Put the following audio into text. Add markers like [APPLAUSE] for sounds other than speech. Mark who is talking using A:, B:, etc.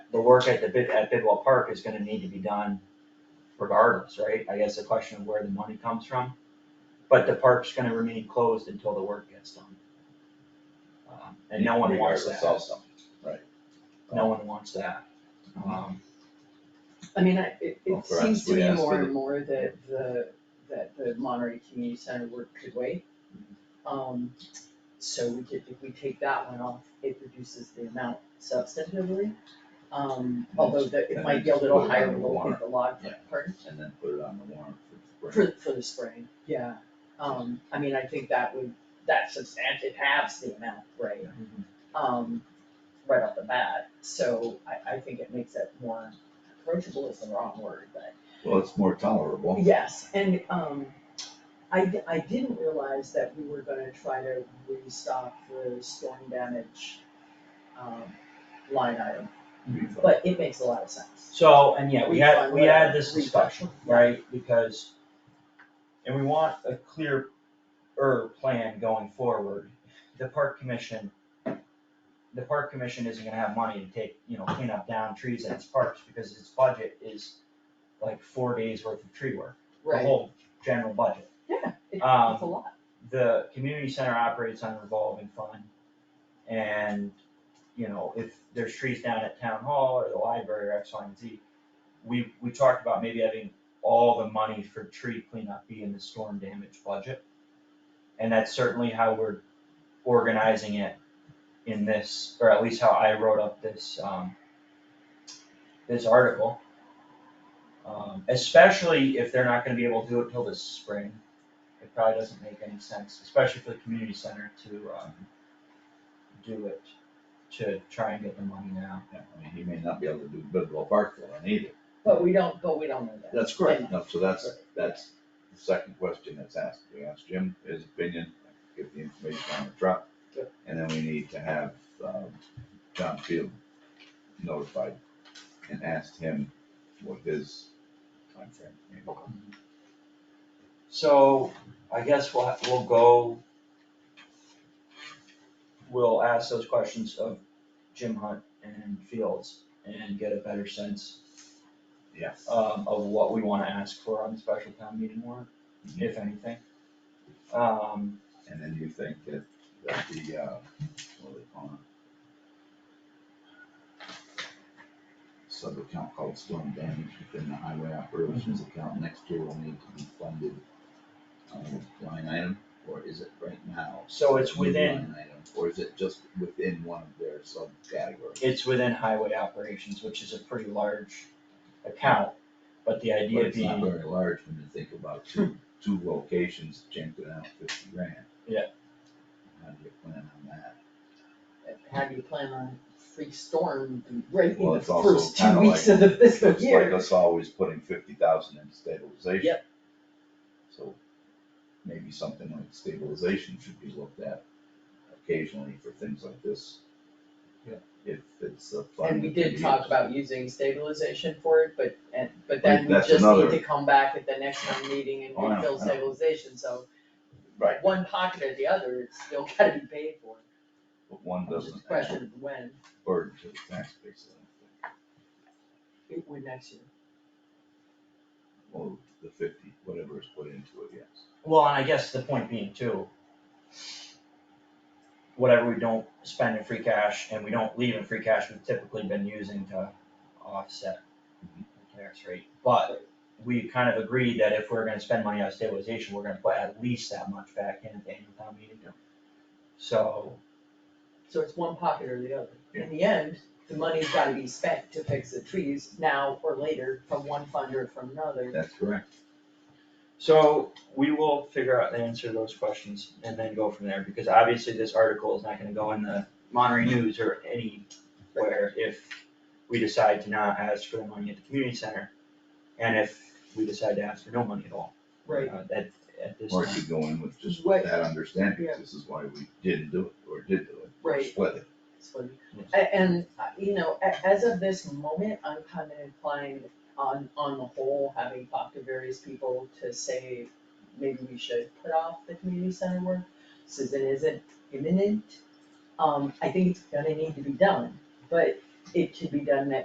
A: the work at the bid, at Bidwell Park is gonna need to be done regardless, right? I guess the question of where the money comes from, but the park's gonna remain closed until the work gets done. Um, And no one wants
B: Requires us to sell
A: that,
B: something, right?
A: no one wants that. Um,
C: I mean, I, it,
B: Well,
C: it seems
B: perhaps
C: to
B: we
C: me
B: ask
C: more
B: the-
C: and more that the, that the Monterey Community Center work could wait. Um, so we could, if we take that one off, it reduces the amount substantively. Um, although that, it might be a little higher, than what we think the log,
B: Yeah.
C: pardon,
B: And then put it on the warrant for the spring.
C: for, for the spring, yeah. Um, I mean, I think that would, that substantive halves the amount, right?
A: Mhm.
C: Um, right off the bat, so I, I think it makes it more approachable is the wrong word, but
B: Well, it's more tolerable.
C: Yes, and um, I, d- I didn't realize that we were gonna try to restock the storm damage um, line item, but it makes a lot of sense.
A: So, and yeah, we had,
C: Refund,
A: we had
C: whatever,
A: this
C: refund.
A: discussion, right, because, and we want a clear, er, plan going forward. The park commission, the park commission isn't gonna have money to take, you know, clean up down trees at its parks, because its budget is like four days worth of tree work, the
C: Right,
A: whole general budget.
C: yeah, it- it's
A: Um,
C: a lot,
A: The community center operates on a revolving fund, and, you know, if there's trees down at town hall or the library or X, Y, and Z, we, we talked about maybe having all the money for tree cleanup be in the storm damage budget. And that's certainly how we're organizing it in this, or at least how I wrote up this, um, this article. Um, especially if they're not gonna be able to do it till this spring, it probably doesn't make any sense, especially for the community center to, um, do it, to try and get the money now.
B: Yeah, I mean, he may not be able to do Bidwell Park for one either.
C: but we don't, but we don't know that.
B: That's correct. No, so that's, that's the second question that's asked. We asked Jim his opinion, get the information on the truck.
C: Yep.
B: And then we need to have, um, John Field notified and asked him what his timeframe. may be.
A: So I guess we'll, ha- we'll go. We'll ask those questions of Jim Hunt and Fields and get a better sense
B: Yeah.
A: um, of what we wanna ask for on the special town meeting warrant, if anything. Um,
B: And then you think that, that the, uh, what are they calling it? Sub account called storm damage within the highway operations
A: Mm-hmm.
B: account next year will need to be funded on a line item, or is it right now?
A: So it's
B: a new
A: within-
B: line item, Or is it just within one of their subcategories?
A: it's within highway operations, which is a pretty large account, but the
B: But
A: idea
B: it's not
A: being,
B: very large when you think about two, two locations jumping out fifty grand.
A: Yeah.
B: How do you plan on that?
C: How do you plan on free storm right in
B: Well,
C: the
B: it's also
C: first two
B: kinda like-
C: weeks of the fiscal
B: It's like
C: year?
B: us always putting fifty thousand into stabilization.
C: Yep.
B: So maybe something like stabilization should be looked at occasionally for things like this.
A: Yeah.
B: If it's a fund.
C: And we
B: that can
C: did
B: be
C: talk
B: used.
C: about using stabilization for it, but, and, but
B: Like,
C: then we
B: that's
C: just need
B: another-
C: to come back at the next town meeting and
B: Oh, I know,
C: refill
B: I know.
C: stabilization, so
B: Right,
C: one pocket or the other, it's still [LAUGHS] gotta be paid for.
B: but one
C: It's just
B: doesn't
C: a question of when,
B: actually burden to the tax base. I don't think.
C: it would next year.
B: Well, the fifty, whatever is put into it, yes.
A: well, and I guess the point being too, whatever we don't spend in free cash and we don't leave in free cash, we've typically been using to offset
B: Mhm.
A: the tax rate. But we kind of agreed that if we're gonna spend money on stabilization, we're gonna put at least that much back in at the annual town meeting. So,
C: So it's one pocket or the other. In the end, the money's gotta be spent to fix the trees now or later from one fund or from another.
B: That's correct.
A: so we will figure out the answer to those questions and then go from there, because obviously this article is not gonna go in the Monterey News or anywhere if we decide to not ask for the money at the community center, and if we decide to ask for no money at all.
C: Right.
A: uh, At, at this
B: Or
A: time.
B: it could go in with just
C: What-
B: that understanding,
C: Yeah.
B: this is why we didn't do it, or did do it, or
C: Right.
B: split it.
C: It's funny.
A: Yes.
C: A- And, uh, you know, a- as of this moment, I'm kind of inclined on, on the whole, having talked to various people to say, maybe we should put off the community center work, since it isn't imminent. Um, I think it's gonna need to be done, but it could be done next